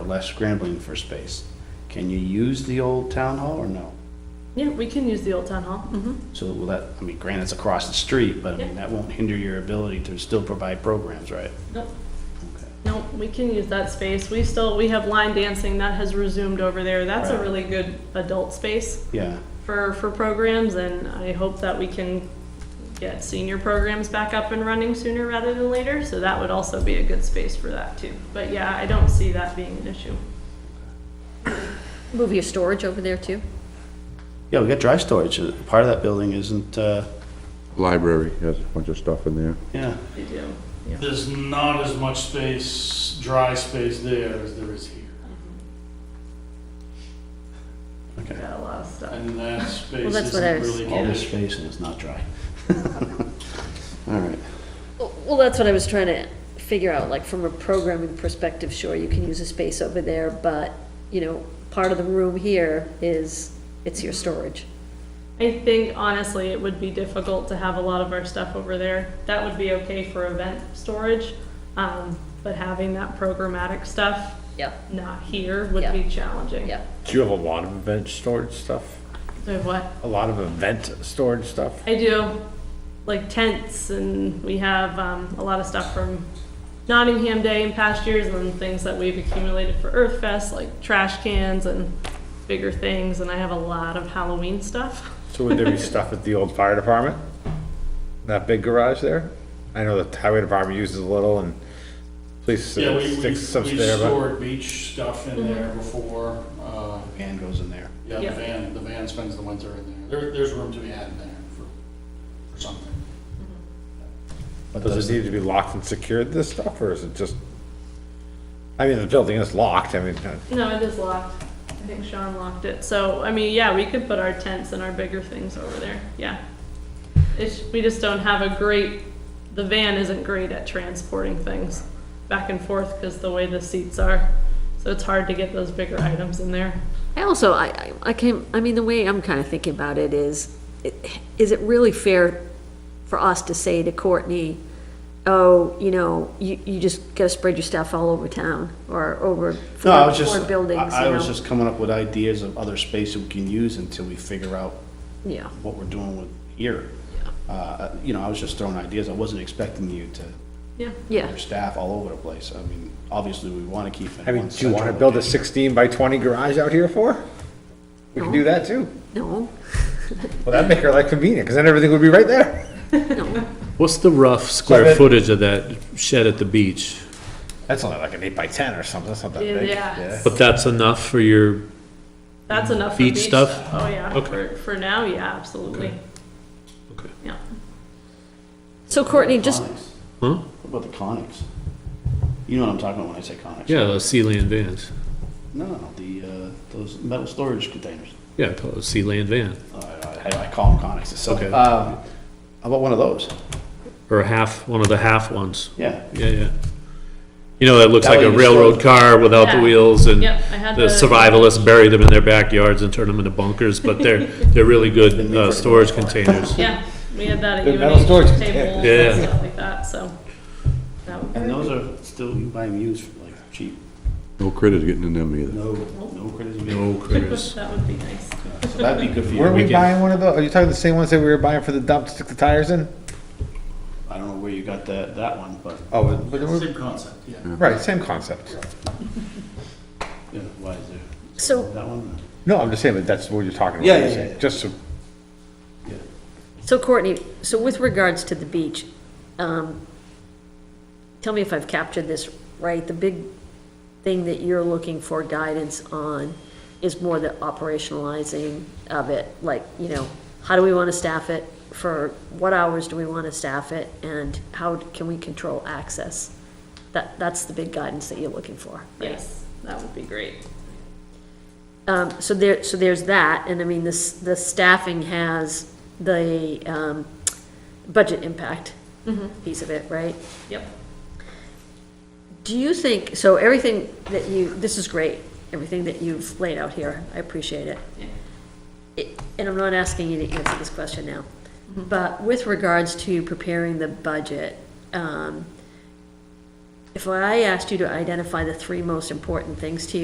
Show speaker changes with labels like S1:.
S1: less scrambling for space. Can you use the old town hall or no?
S2: Yeah, we can use the old town hall. Mm-hmm.
S1: So will that, I mean, granted, it's across the street, but I mean, that won't hinder your ability to still provide programs, right?
S2: Nope.
S1: Okay.
S2: No, we can use that space. We still, we have line dancing that has resumed over there. That's a
S1: Right.
S2: really good adult space
S1: Yeah,
S2: for, for programs and I hope that we can get senior programs back up and running sooner rather than later. So that would also be a good space for that too. But yeah, I don't see that being an issue.
S3: Move your storage over there too?
S1: yeah, we got dry storage, Uh, part of that building isn't, uh,
S4: Library has a bunch of stuff in there.
S1: yeah,
S2: We do, yeah.
S5: There's not as much space, dry space there as there is here.
S1: okay.
S2: Got a lot of stuff.
S5: And that space
S3: Well, that's what I
S5: isn't
S3: was-
S5: really.
S1: All this space and it's not dry. All right,
S3: Well, that's what I was trying to figure out, like, from a programming perspective, sure, you can use a space over there, but, you know, part of the room here is, it's your storage.
S2: I think honestly, it would be difficult to have a lot of our stuff over there. That would be okay for event storage, um, but having that programmatic stuff
S3: Yeah,
S2: not here would
S3: Yeah.
S2: be challenging.
S3: yeah.
S6: Do you have a lot of event storage stuff?
S2: So what
S6: A lot of event storage stuff?
S2: I do, like tents, and we have um, a lot of stuff from Nottingham Day and past years, and then things that we've accumulated for Earth Fest, like trash cans and bigger things. And I have a lot of Halloween stuff.
S6: So would there be stuff at the old fire department? That big garage there? I know the highway department uses a little and police
S5: Yeah, we, we, we
S6: sticks some there, but
S5: stored beach stuff
S3: Mm-hmm.
S5: in there before, uh,
S1: van goes in there.
S5: yeah, the
S2: Yeah.
S5: van, the van spends the winter in there. There, there's room to be had in there for, for something.
S1: But
S6: does it need to be locked and secured, this stuff, or is it just? I mean, the building is locked, I mean, uh,
S2: No, it is locked. I think Sean locked it. So, I mean, yeah, we could put our tents and our bigger things over there. Yeah. It's, we just don't have a great, the van isn't great at transporting things back and forth because the way the seats are. So it's hard to get those bigger items in there.
S3: I also, I, I- I came, I mean, the way I'm kind of thinking about it is, i- is it really fair for us to say to Courtney, oh, you know, you, you just gotta spread your stuff all over town, or over
S1: No, I
S3: four
S1: was just,
S3: four buildings,
S1: I I
S3: you
S1: was
S3: know?
S1: just coming up with ideas of other space that we can use until we figure out
S3: Yeah,
S1: what we're doing with here. Uh, You know, I was just throwing ideas, I wasn't expecting you to,
S2: Yeah.
S3: yeah,
S1: your staff all over the place. I mean, obviously, we want to keep it
S6: I
S1: in
S6: mean,
S1: one
S6: do you wanna
S1: central
S6: build a
S1: location.
S6: sixteen by twenty garage out here for? We can do that too.
S3: no,
S6: Well, that'd make her life convenient, cause then everything would be right there.
S7: What's the rough
S6: that-
S7: square footage of that shed at the beach?
S6: That's only like an eight by ten or something, that's not that
S2: Yeah,
S6: big.
S2: yeah.
S7: But that's enough for your,
S2: That's enough for
S7: Beach stuff?
S2: Oh, yeah.
S7: Okay.
S2: For, for now, yeah, absolutely.
S7: Okay.
S2: Yeah.
S3: so Courtney, just,
S1: Conics.
S7: huh?
S1: What about the conics? You know what I'm talking about when I say conics?
S7: Yeah, the Sealand vans.
S1: No, no, the, uh, those metal storage containers.
S7: Yeah, I call it a Sealand van,
S1: Uh, I, I call them conics, it's so,
S7: Okay.
S1: um, how about one of those?
S7: or a half, one of the half ones.
S1: Yeah,
S7: Yeah, yeah. You know, that looks
S1: That
S7: like
S1: way
S7: a
S1: you still-
S7: railroad car without the
S2: Yeah.
S7: wheels and
S2: Yep, I had
S7: the
S2: those.
S7: survivalists bury them in their backyards and turn them into bunkers, but they're, they're really good, uh, storage containers.
S2: Yeah. We had that at
S6: The metal
S2: UNH
S6: storage
S2: tables
S6: container.
S2: and
S7: Yeah.
S2: stuff like that. So that would
S1: and those are still, you buy them used for like cheap.
S4: No critters getting in them either.
S1: No, no criticism.
S7: No critters.
S2: that would be nice.
S1: So that'd be good for you.
S6: Weren't we buying one of those? Are you talking the same ones that we were buying for the dump to stick the tires in?
S1: I don't know where you got that, that one, but,
S6: Oh, but- but we're-
S5: Same concept, yeah.
S6: right, same concept.
S1: you know, why is there,
S3: so,
S1: that one?
S6: No, I'm just saying that that's what you're talking about.
S1: Yeah, yeah, yeah, yeah.
S6: Just so,
S3: so Courtney, so with regards to the beach, um, tell me if I've captured this right, the big thing that you're looking for guidance on is more the operationalizing of it, like, you know, how do we want to staff it? For what hours do we want to staff it, and how can we control access? That, that's the big guidance that you're looking for, right?
S2: Yes, that would be great.
S3: Um, so there, so there's that, and I mean, this, the staffing has the, um, budget impact piece of it, right?
S2: Yep.
S3: Do you think, so everything that you, this is great, everything that you've laid out here, I appreciate it.
S2: Yeah.
S3: It- And I'm not asking you to answer this question now, but with regards to preparing the budget, um, if I asked you to identify the three most important things to you.